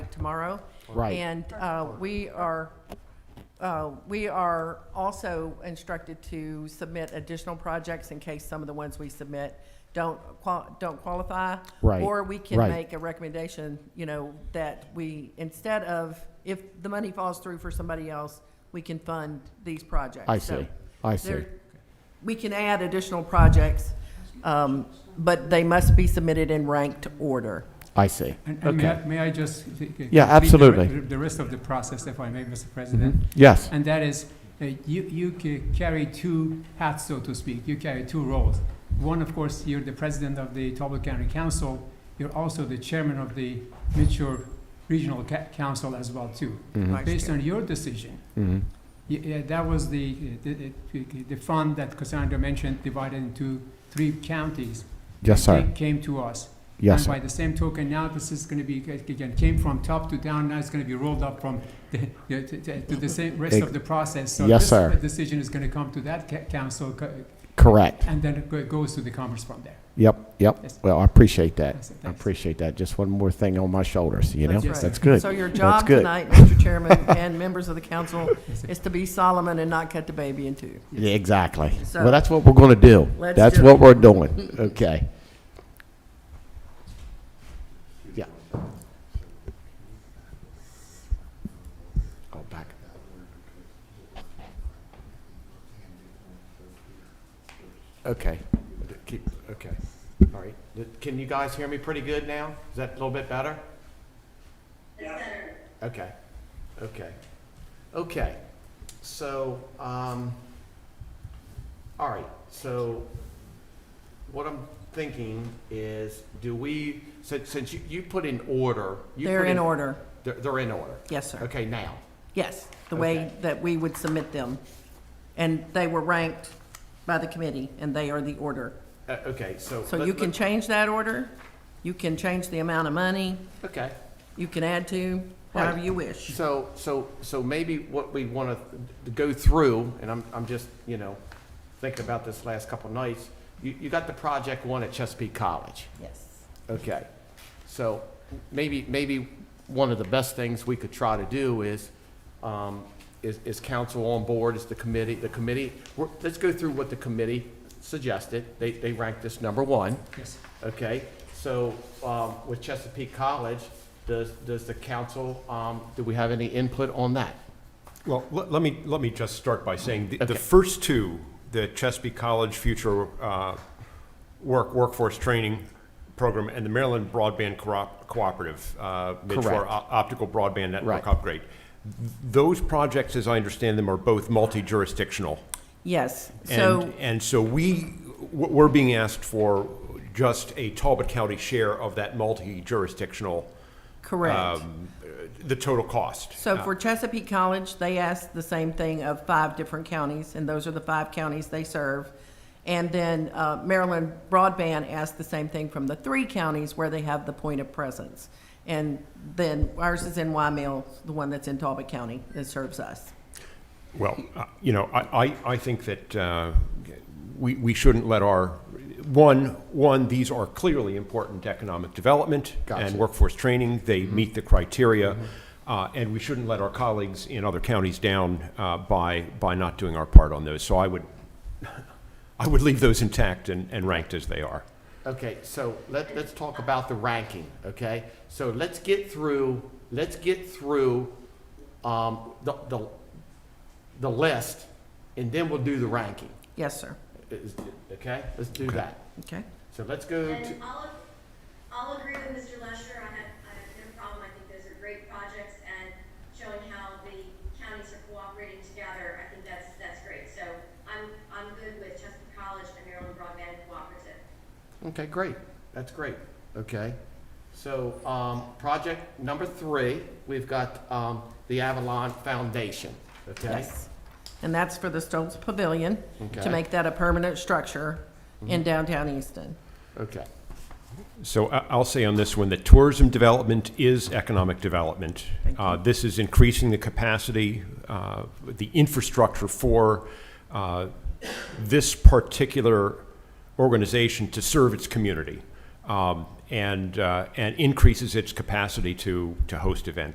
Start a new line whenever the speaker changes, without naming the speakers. tomorrow.
Right.
And uh, we are, uh, we are also instructed to submit additional projects in case some of the ones we submit don't qual, don't qualify.
Right.
Or we can
Right.
make a recommendation, you know, that we, instead of, if the money falls through for somebody else, we can fund these projects.
I
So
see. I see.
there- We can add additional projects, um, but they must be submitted in ranked order.
I see.
And and may
Okay.
I- may I just? c- c- complete
Yeah,
the re-
absolutely.
The rest of the process, if I may, Mr.
Mhm.
President.
Yes,
And that is, uh, you you ca- carry two hats, so to speak. You carry two roles. One, of course, you're the president of the Talbot County Council. You're also the chairman of the Mitchell Regional Ca- Council as well, too.
Mhm.
Based on your decision,
Mhm.
Y- Yeah, that was the, the, the- the fund that Cassandra mentioned divided into three counties.
yes,
It
sir.
ca- Came to us.
Yes,
And by
sir.
the same token, now this is gonna be, again, came from top to down, now it's gonna be rolled up from the, the- to to the same rest of the process. So
Yes,
this
sir.
Decision is gonna come to that ca- council, co-
Correct.
and then it go- goes to the Commerce from there.
Yep,
Yes.
yep. Well, I appreciate that.
That's it.
I
Thanks.
appreciate that. Just one more thing on my shoulders, you know?
That's right.
That's good.
So your
That's
job
good.
tonight, Mr. Chairman and members of the council,
Yes, sir.
is to be Solomon and not cut the baby in two.
Yeah, Exactly.
So-
Well, that's what we're going to do.
Let's
That's
do
what we're doing. Okay. Yeah. Go back. Okay. Keep, okay. All right. Can you guys hear me pretty good now? Is that a little bit better? Okay. Okay. Okay. So, um, all right, so what I'm thinking is, do we, since, since you, you put in order. you
They're
put
in order.
They're, they're in order.
Yes, sir.
Okay, now.
Yes, the way
Okay.
that we would submit them. And they were ranked by the committee, and they are the order.
Uh, okay, so.
So
let-
you can
let-
change that order, you can change the amount of money,
Okay,
you can add to, however
Right.
you wish.
so, so, so maybe what we want to go through, and I'm, I'm just, you know, thinking about this last couple nights. You, you got the project one at Chesapeake College.
Yes.
Okay, so maybe, maybe one of the best things we could try to do is, um, is, is council on board, is the committee, the committee, we're- let's go through what the committee suggested. They, they ranked this number one,
Yes.
okay? So, um, with Chesapeake College, does, does the council, um, do we have any input on that?
Well, let, let me, let me just start by saying, the,
Okay.
the first two, the Chesapeake College Future, uh, Work, Workforce Training Program and the Maryland Broadband Corop- Cooperative, uh, Mitch, for
Correct.
o- optical broadband
Right.
network upgrade. Those projects, as I understand them, are both multi-jurisdictional.
Yes, so,
And, and so we, we're being asked for just a Talbot County share of that multi-jurisdictional,
correct.
um, uh, the total cost. Uh,
So for Chesapeake College, they asked the same thing of five different counties, and those are the five counties they serve. And then uh, Maryland Broadband asked the same thing from the three counties where they have the point of presence. And then ours is in Wymeal, the one that's in Talbot County that serves us.
Well, uh, you know, I, I, I think that uh, we, we shouldn't let our, one, one, these are clearly important to economic development
Gotcha.
and workforce training. They meet the criteria. Uh, and we shouldn't let our colleagues in other counties down uh, by, by not doing our part on those. So I would, I would leave those intact and, and ranked as they are.
Okay, so let, let's talk about the ranking, okay? So let's get through, let's get through, um, the, the, the list, and then we'll do the ranking,
Yes, sir.
Is- okay? Let's do that.
Okay.
So let's go to,
And I'll, I'll agree with Mr. Lesher, I have, I have no problem, I think those are great projects, and showing how the counties are cooperating together, I think that's, that's great. So I'm, I'm good with Chesapeake College and Maryland Broadband Cooperative.
okay, great, that's great, okay? So, um, project number three, we've got, um, the Avalon Foundation, okay?
Yes. And that's for the Stokes Pavilion, to
Okay. Mm-hmm.
make that a permanent structure in downtown Easton.
Okay,
So I- I'll say on this one that tourism development is economic development. Uh, This is increasing the capacity, uh, the infrastructure for uh, this particular organization to serve its community um, and, uh, and increases its capacity to, to host events.